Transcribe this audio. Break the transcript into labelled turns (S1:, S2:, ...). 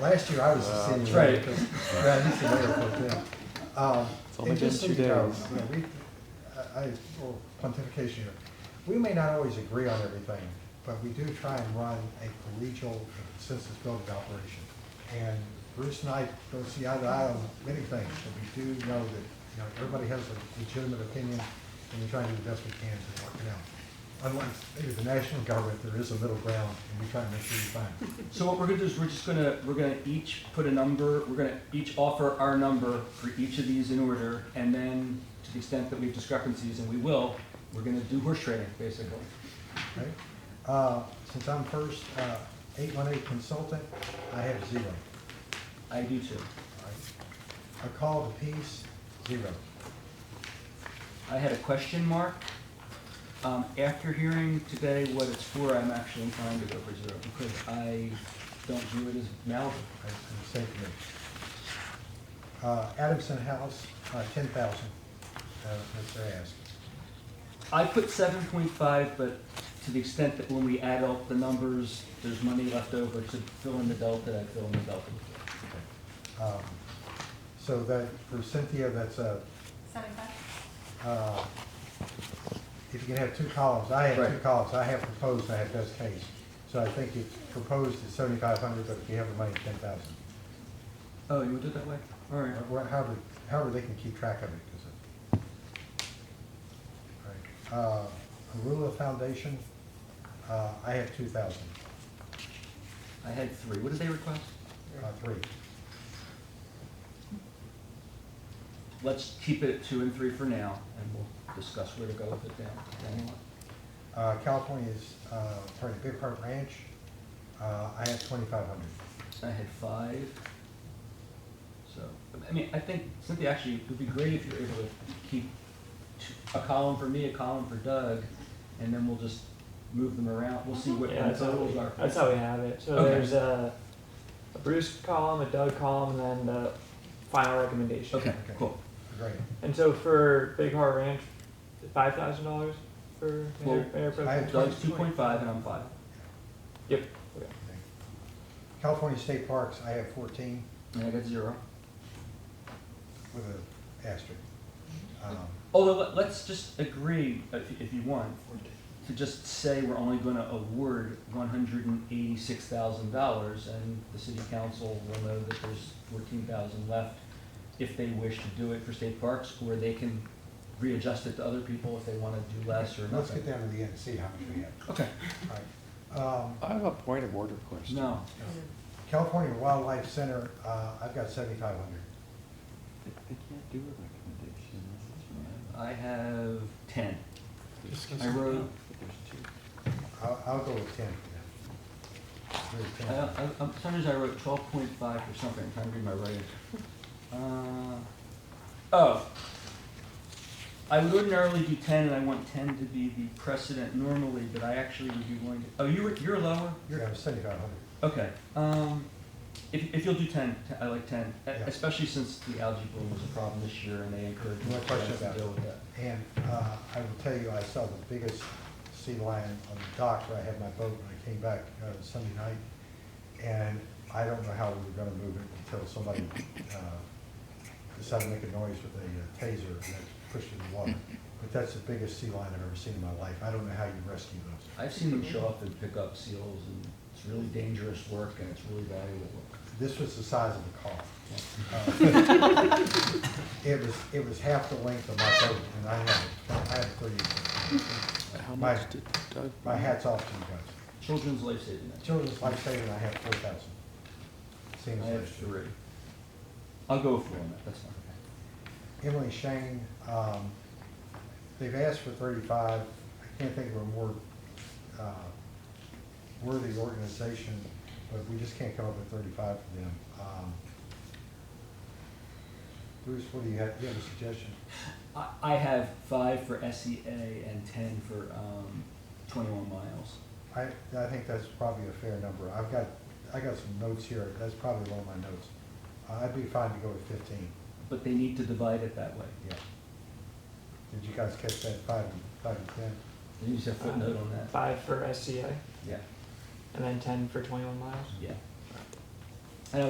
S1: Last year I was the city
S2: Wow.
S1: mayor, because Brad, he's the mayor pro tem. Um,
S2: It's only
S1: And just so
S2: been
S1: you
S2: two
S1: know,
S2: days.
S1: you know, we, I, I- well, pontification here, we may not always agree on everything, but we do try and run a collegial consensus building operation. And Bruce and I don't see eye to eye on many things, but we do know that, you know, everybody has a legitimate opinion, and we try and do the best we can to work it out. Unlike maybe the national government, there is a middle ground, and we try and make sure we find it.
S3: So what we're gonna do is we're just gonna, we're gonna each put a number, we're gonna each offer our number for each of these in order, and then to the extent that we have discrepancies, and we will, we're gonna do horse trading, basically.
S1: Okay. Uh, Since I'm first, uh, 818 consultant, I have zero.
S3: I do too.
S1: All right. A call to peace, zero.
S3: I had a question mark. Um, after hearing today what it's for, I'm actually inclined to go for zero, because I don't view it as malleable.
S1: That's a mistake there. Uh, Adamson House, uh, 10,000, uh, that's their ask.
S3: I put seven point five, but to the extent that when we add up the numbers, there's money left over to fill in the delta, I fill in the delta.
S1: Okay. Um, So that, for Cynthia, that's a,
S4: Seventy-five?
S1: uh, if you can have two columns, I have two
S3: Right.
S1: columns, I have proposed, I have best case. So I think it's proposed is 7,500, but if you have the money, 10,000.
S3: Oh, you would do it that way? All right.
S1: Or- or However, however they can keep track of it, because it. All right. Uh, Arula Foundation, uh, I have two thousand,
S3: I had three. What did they request?
S1: uh, three.
S3: Let's keep it at two and three for now, and we'll discuss where to go with it down. down the line.
S1: Uh, California's, uh, sorry, Big Heart Ranch, uh, I have twenty-five hundred.
S3: I had five. So, I mean, I think, Cynthia, actually, it would be great if you're able to keep t- a column for me, a column for Doug, and then we'll just move them around. We'll see what
S2: Yeah,
S3: the
S2: that's how,
S3: totals
S2: we,
S3: are.
S2: that's how we have it. So
S3: Okay.
S2: there's a, a Bruce column, a Doug column, and then the final recommendation.
S3: Okay,
S1: Okay.
S3: cool.
S1: Great.
S2: And so for Big Heart Ranch, five thousand dollars for
S3: Well,
S2: mayor, mayor pro
S1: I-
S2: tem?
S3: Doug's two point five and I'm five.
S2: Yep. Okay.
S1: Okay. California State Parks, I have fourteen
S3: And I got zero.
S1: with a asterisk. Um,
S3: Although, let- let's just agree, if, if you want, to just say we're only gonna award one hundred and eighty-six thousand dollars, and the city council will know that there's fourteen thousand left if they wish to do it for state parks, or they can readjust it to other people if they wanna do less or
S1: Let's get
S3: nothing.
S1: down to the end and see how much we have.
S3: Okay,
S1: All right. Um,
S2: I have a point of order question.
S3: no,
S1: California Wildlife Center, uh, I've got seventy-five hundred.
S5: They they can't do a recommendation, this is right.
S3: I have ten.
S5: Just
S3: I wrote-
S5: consider- But there's two.
S1: I'll, I'll go with ten for that. Very
S3: I,
S1: ten.
S3: I, Uh, I'm- for some reason I wrote twelve point five or something, I'm trying to read my writing. Uh, oh. I would ordinarily do ten, and I want ten to be the precedent normally, but I actually would be willing to, oh, you were, you're lower?
S1: You're gonna have seventy-five hundred.
S3: Okay, um, if, if you'll do ten, t- I like ten, e-
S1: Yeah.
S3: especially since the algae bloom was a problem this year and they encouraged
S1: No
S3: us
S1: question
S3: to
S1: about
S3: deal
S1: it.
S3: with that.
S1: And, uh, I will tell you, I saw the biggest sea lion on the dock where I had my boat when I came back, uh, Sunday night. And I don't know how we were gonna move it until somebody, uh, decided to make a noise with a uh, taser and that pushed it in the water. But that's the biggest sea lion I've ever seen in my life. I don't know how you rescue those.
S3: I've seen them show up and pick up seals, and it's really dangerous work, and it's really valuable work.
S1: This was the size of the car. It was, it was half the length of my boat, and I had, I had three.
S5: How
S1: My-
S5: much did Doug?
S1: My hat's off to you guys.
S3: Children's life saving.
S1: Children's Life Saving, I have four thousand. Seems
S3: I have
S1: like.
S3: three. I'll go for one, that's fine.
S1: Emily Shane, um, they've asked for thirty-five. I can't think of a more, uh, worthy organization, but we just can't come up with thirty-five for them. Um, Bruce, what do you have? You have a suggestion?
S3: I, I have five for SEA and ten for, um, twenty-one miles.
S1: I, I think that's probably a fair number. I've got, I got some notes here, that's probably one of my notes. Uh, I'd be fine to go with fifteen,
S3: But they need to divide it that way.
S1: yeah. Did you guys catch that, five, and- five and ten?
S3: They need to footnote on that.
S2: Five for SCA,
S3: Yeah,
S2: and then ten for twenty-one miles.
S3: yeah.